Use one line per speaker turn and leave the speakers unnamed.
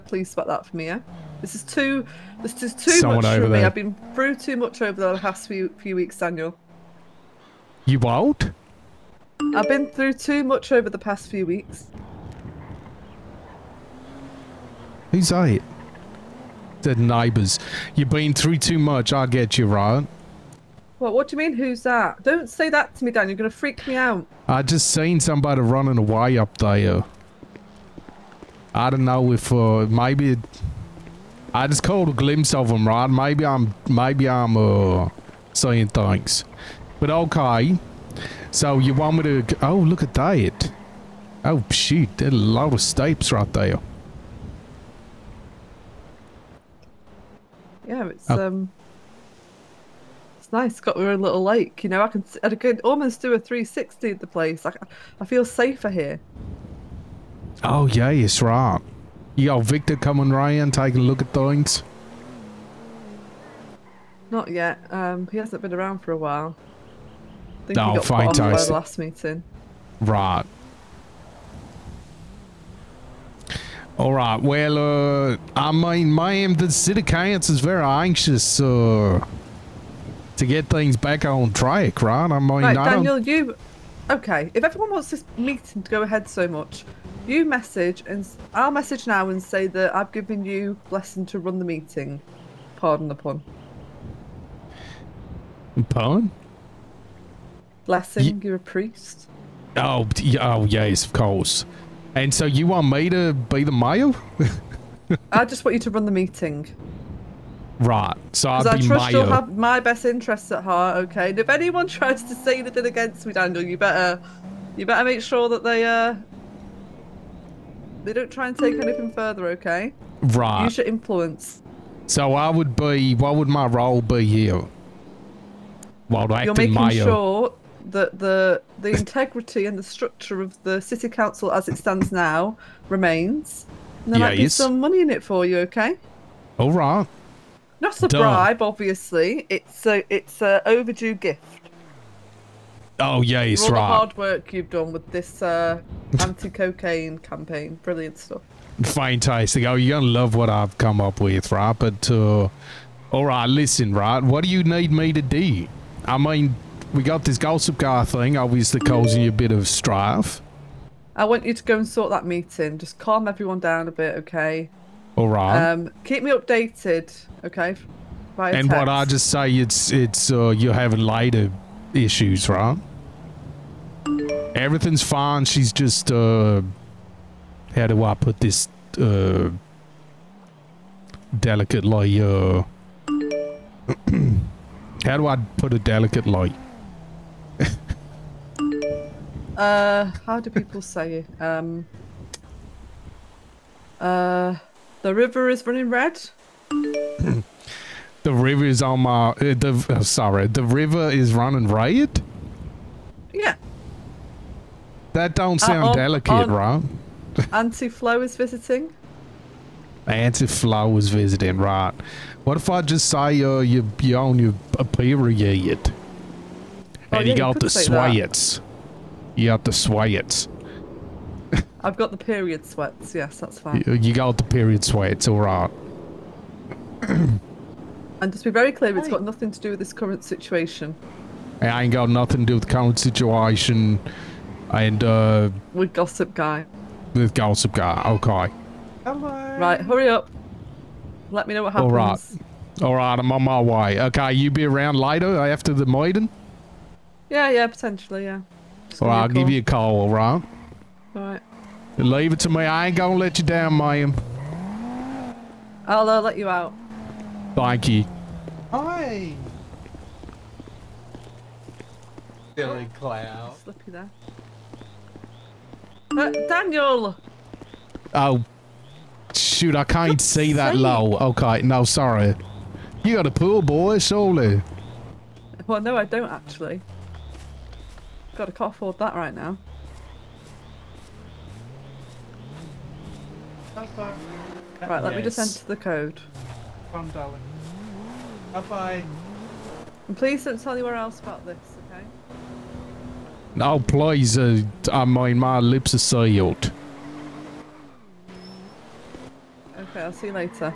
Please spot that for me. Yeah? This is too. This is too
Someone
much
over
for me.
there.
I've been through too much over the last few few weeks, Daniel.
You what?
I've been through too much over the past few weeks.
Who's that? The neighbors. You've been through too much. I get you, right?
What? What do you mean? Who's that? Don't say that to me, Dan. You're gonna freak me out.
I just seen somebody running away up there. I don't know if uh, maybe I just caught a glimpse of him, right? Maybe I'm maybe I'm uh, saying things, but okay. So you want me to? g- Oh, look at that! Oh shoot, there's a lot of steps right there.
Yeah, it's
Oh.
um, it's nice. Got our own little lake. You know, I can s- I could almost do a 360 at the place. I, I feel safer here.
Oh yeah, it's right. You got Victor coming round, taking a look at things.
Not yet. Um, he hasn't been around for a while. I think
Oh,
he got put off by
fantastic.
the last meeting.
Right. All right. Well, uh, I mean, ma'am, the city council is very anxious uh, to get things back on track, right? I mean,
Right,
I
Daniel, you. Okay, if everyone wants this meeting to go ahead so much, you message and s- I'll message now and say that I've given you blessing to run the meeting. Pardon the pun.
don't. Pardon?
Blessing, you're a priest.
Oh, d- y- oh, yes, of course. And so you want me to be the mayor?
I just want you to run the meeting
right. So I'll
because I
be
trust
mayor.
you'll have my best interests at heart. Okay, and if anyone tries to say anything against me, Daniel, you better, you better make sure that they uh, they don't try and take anything further. Okay,
right.
use your influence.
so I would be. What would my role be here? Well, the
You're
acting
making
mayor.
sure that the the integrity and the structure of the city council as it stands now remains. And there might be
Yes.
some money in it for you, okay?
All right.
Not a
Duh.
bribe, obviously. It's a it's a overdue gift
Oh, yes,
for all
right.
the hard work you've done with this uh, anti-cocaine campaign. Brilliant stuff.
Fantastic. Oh, you're gonna love what I've come up with, right? But uh all right, listen, right? What do you need me to do? I mean, we got this gossip guy thing obviously causing you a bit of strife.
I want you to go and sort that meeting. Just calm everyone down a bit, okay?
All right.
Um, keep me updated, okay? Via
and what I
text.
just say it's it's uh you're having later issues, right? Everything's fine, she's just uh how do I put this uh delicately uh how do I put it delicately?
Uh, how do people say it? Um, uh, the river is running red.
The river is on my. Uh, the uh, sorry, the river is running riot.
Yeah.
That don't sound
Uh, on-
delicate,
on-
right?
Auntie Flo is visiting.
Auntie Flo was visiting, right? What if I just say uh, you you on your a period,
Oh,
and
yeah,
you
you
got
could
the
say that.
sweats, you got the sweats,
I've got the period sweats. Yes, that's fine.
you, you got the period sweats, all right?
And just be very clear, it's got nothing to do with this current situation.
I ain't got nothing to do with the current situation, and uh,
With Gossip Guy.
with gossip guy. Okay,
Right, hurry up. Let me know what
All
happens.
right. all right, I'm on my way. Okay, you be around later after the meeting.
Yeah, yeah, potentially, yeah. Just
All
give me
right,
a
I'll give
call.
you a call, all right?
All right.
Leave it to me. I ain't gonna let you down, ma'am.
I'll uh, let you out.
Thank you.
Hi. Silly clown.
Slippy there. Uh, Daniel!
Oh, shoot, I can't
God's
see that
sake.
low. Okay, no, sorry. You got a pool boy, surely.
Well, no, I don't actually. God, I can't afford that right now.
How far?
Right, let me just
Yes.
enter the code.
From darling. Bye bye.
And please don't tell anyone else about this, okay?
No, please, uh, I mean, my lips are sealed.
Okay. Okay, I'll see you later.